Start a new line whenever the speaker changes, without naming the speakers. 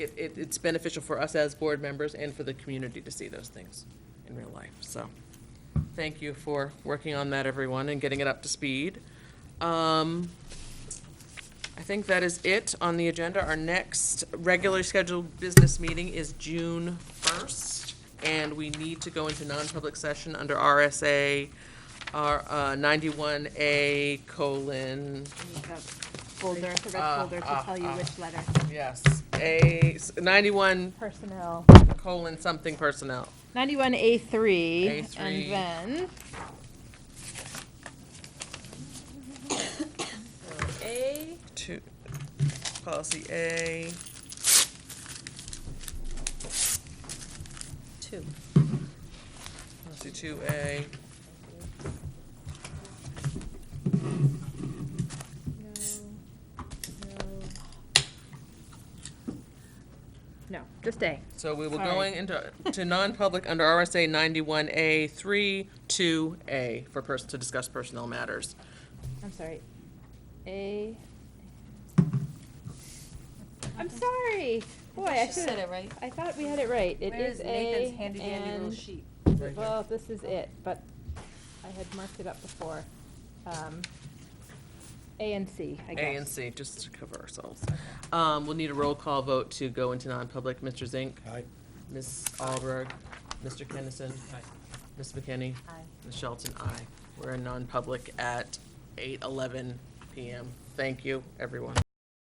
it, it, it's beneficial for us as board members and for the community to see those things in real life, so. Thank you for working on that, everyone, and getting it up to speed. Um, I think that is it on the agenda. Our next regularly scheduled business meeting is June first, and we need to go into non-public session under RSA, our uh, ninety-one A colon,
The Folder, the red
Ah,
Uh,
folder
uh,
to tell you
uh.
which letter,
yes, A, ninety-one
personnel.
colon something personnel.
Ninety-one A three,
A3.
and then,
A. Two, policy A.
Two.
Policy two A.
no, just A.
So we were
Sorry.
going into, to non-public under RSA ninety-one A three, two A for person, to discuss personnel matters.
I'm sorry. A. I'm sorry. Boy, I should
she said it
have.
right.
I thought we had it right. It
Where
is
is
A
Nathan's handy dandy little
and-
sheet?
Right here.
Well, this is it, but I had marked it up before. Um, A and C, I guess.
A and C, just to cover ourselves. Um, we'll need a roll call vote to go into non-public. Mr. Zink?
Aye.
Ms. Alberg? Mr. Kennison? Ms. McKinney? Ms. Shelton, aye. We're in non-public at eight eleven PM. Thank you, everyone.